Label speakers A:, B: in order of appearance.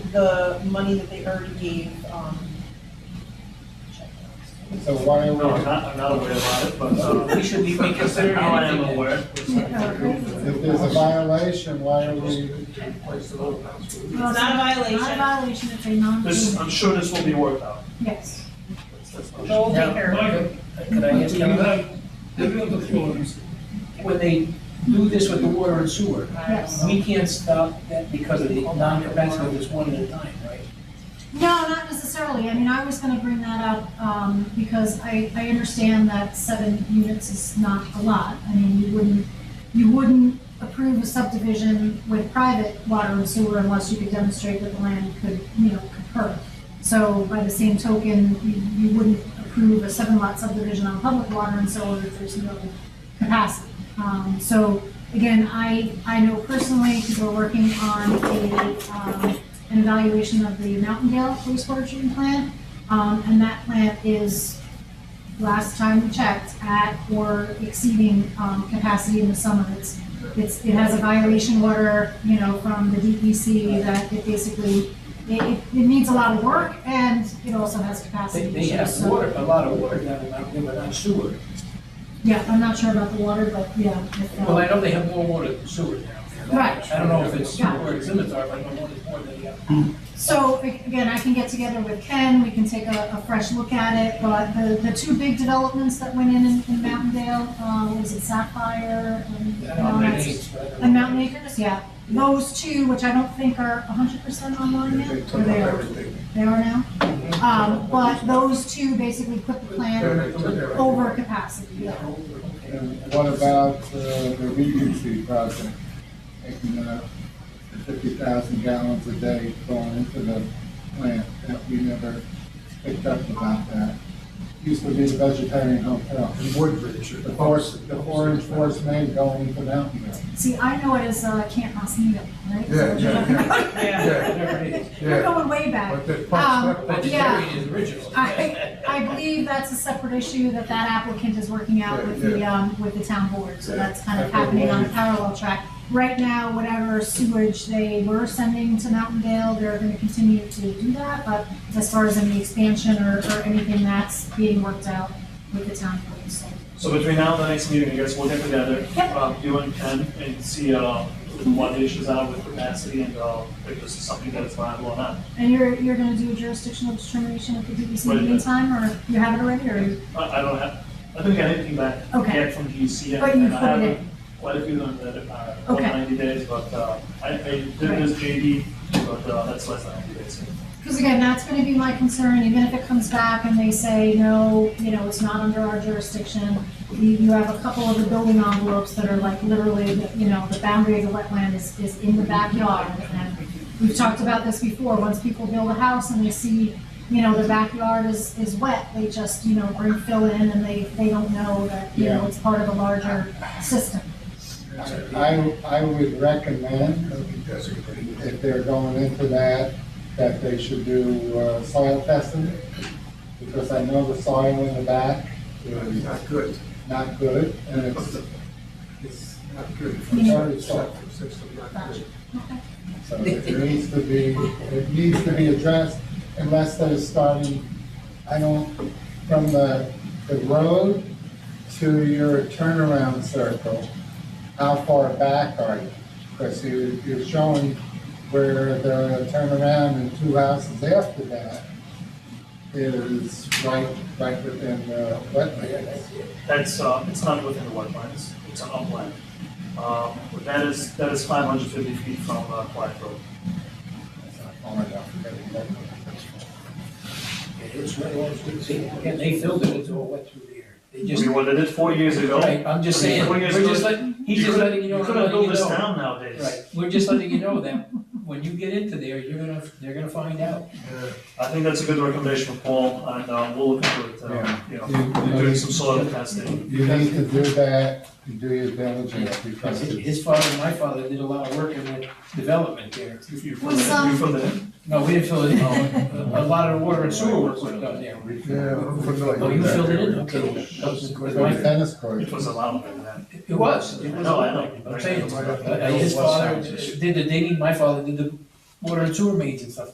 A: the money that they already gave, um. check
B: So why are
C: No, I'm
B: we,
C: not, I'm not aware of it, but, uh,
D: We should be considering
C: now I am
D: anything.
C: aware.
B: if there's a violation, why are we,
A: It's not a
E: Not a
A: violation,
E: violation if they non.
C: This, I'm sure this will be worked out.
E: Yes.
A: Joel
D: Now,
A: Baker,
D: Michael, Could I ask you, another- when they do this with the water and sewer,
E: Yes.
D: we can't stop that because of the non-capacity of this one at a time, right?
E: No, not necessarily. I mean, I was gonna bring that up, um, because I, I understand that seven units is not a lot. I mean, you wouldn't, you wouldn't approve a subdivision with private water and sewer unless you could demonstrate that the land could, you know, concur. So by the same token, you, you wouldn't approve a seven lot subdivision on public water and sewer if there's no capacity. Um, so again, I, I know personally, because we're working on a, um, an evaluation of the Mountaindale wastewater treatment plant. Um, and that plant is, last time we checked, at or exceeding, um, capacity in the summer. It's, it's, it has a violation order, you know, from the DEC that it basically, it, it, it needs a lot of work and it also has capacity
D: They,
E: issues.
D: they have
E: so-
D: water, a lot of water down in Mount Demo, not sewer.
E: Yeah, I'm not sure about the water, but yeah. if, uh,
D: Well, I know they have more water than sewer down there.
E: Right.
D: I don't know if it's
E: Yeah.
D: where its limits are, but I know it's more than the other.
E: So a- again, I can get together with Ken, we can take a, a fresh look at it, but the, the two big developments that went in in in Mountaindale, uh, was it Sapphire and?
D: I don't know if it's-
E: And Mountain Acres, yeah, those two, which I don't think are hundred percent online yet,
B: they
E: or
B: took up
E: they are,
B: everything?
E: they are now? Um, but those two basically put the plan over capacity, yeah.
B: And what about uh, the regency project? Taking uh, fifty thousand gallons a day going into the plant that we never picked up about that. Used to be a vegetarian hotel.
F: in Woodbridge.
B: The forest, the orange forest main going into Mountain View.
E: See, I know it as, uh, Camp Mosnito, right?
F: Yeah, yeah, yeah,
A: yeah,
F: yeah,
D: There it is.
E: We're
F: yeah.
E: going way back.
F: But that
E: Um,
D: But
F: part, that,
D: the
E: Yeah.
D: area is original.
E: I, I believe that's a separate issue that that applicant is working out with the, um, with the town board, so that's kind of happening on a parallel track. Right now, whatever sewage they were sending to Mountaindale, they're gonna continue to do that, but as far as any expansion or, or anything, that's being worked out with the town board, so.
C: So between now and the next meeting, I guess we'll get together,
E: Yep.
C: uh, you and Ken, and see, uh, what the issues are with capacity and, uh, if this is something that is viable or not.
E: And you're, you're gonna do a jurisdictional determination at the
C: Wait
E: DEC
C: a
E: in the
C: minute.
E: meantime, or you have it already, or?
C: I, I don't have, I don't get anything back
E: Okay.
C: yet from DEC. and-
E: But you
C: and I
E: put it
C: haven't-
E: in.
C: Quite a few on the, uh, over
E: Okay.
C: ninety days, but, uh, I, I did
E: Right.
C: this JD, but, uh, that's less than ninety days.
E: Because again, that's gonna be my concern, even if it comes back and they say, no, you know, it's not under our jurisdiction. You, you have a couple of the building envelopes that are like literally, the- you know, the boundary of the wetland is, is in the backyard. And we've talked about this before, once people build a house and they see, you know, the backyard is, is wet, they just, you know, bring fill in and they, they don't know that, you know,
B: Yeah.
E: it's part of a larger system.
B: I, I would recommend
F: I think that's a good idea.
B: if they're going into that, that they should do uh, soil testing, because I know the soil in the back
F: It's
B: is
F: not good,
B: not good, and it's, it's,
F: not good.
B: Yeah.
F: It's not good. It's not good.
B: so it needs to be, it needs to be addressed unless they're starting, I don't, from the, the road to your turnaround circle, how far back are you? Because you, you're showing where the turnaround and two houses after that is right, right within the wetlands.
C: That's, uh, it's not within the wetlands, it's an upland. Um, that is, that is five hundred fifty feet from, uh, Quiet Road.
B: Oh my God, I forgot the wetlands.
D: It's right along the street. And they filled it, it's all wet through there. They just.
C: We wanted it four years ago.
D: Right, I'm just saying,
C: Four
D: we're
C: years
D: just
C: ago.
D: letting, he's just letting you know,
C: You
D: I'm
C: couldn't
D: letting you
C: build this
D: know.
C: town nowadays.
D: Right, we're just letting you know that when you get into there, you're gonna, they're gonna find out.
C: I think that's a good recommendation for Paul, and uh, we'll look into it, uh,
B: Yeah.
C: you know,
B: You-
C: doing some soil testing.
B: You need to do that, and do your diligence, because it's
D: His father and my father did a lot of work in the development there.
C: If you,
E: Was, um,
C: you from the,
D: No, we didn't fill it in, a lot of water and sewer work was done there.
F: Yeah, I'm familiar.
D: Oh, you
F: with that
D: filled it in,
F: area.
D: okay.
B: It's like a tennis court.
C: it was allowed back then.
D: It was, it was.
C: No, I know.
D: I'm saying, uh, his father did the digging, my father did the water and sewer mains and stuff